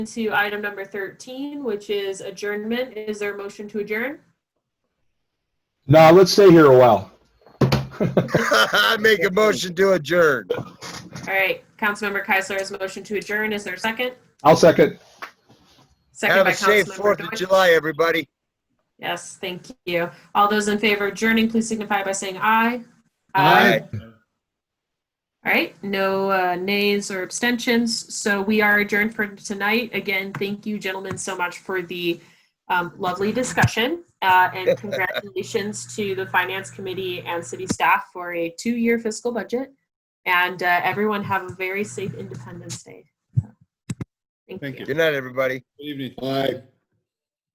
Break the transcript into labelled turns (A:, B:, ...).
A: to item number 13, which is adjournment. Is there a motion to adjourn?
B: No, let's stay here a while.
C: I make a motion to adjourn.
A: All right, Councilmember Keisler has motion to adjourn. Is there a second?
B: I'll second.
A: Second
C: Have
A: by
C: a safe
A: Councilmember
C: Fourth of
A: Deutsch.
C: July, everybody.
A: Yes, thank you. All those in favor of adjourning, please signify by saying aye.
B: Aye.
A: All right, no uh, nays or abstentions. So we are adjourned for tonight. Again, thank you, gentlemen, so much for the um, lovely discussion. Uh, and congratulations to the Finance Committee and City staff for a two year fiscal budget. And uh, everyone have a very safe Independence Day. So,
D: Thank you.
C: Good night, everybody.
D: Good evening. Bye.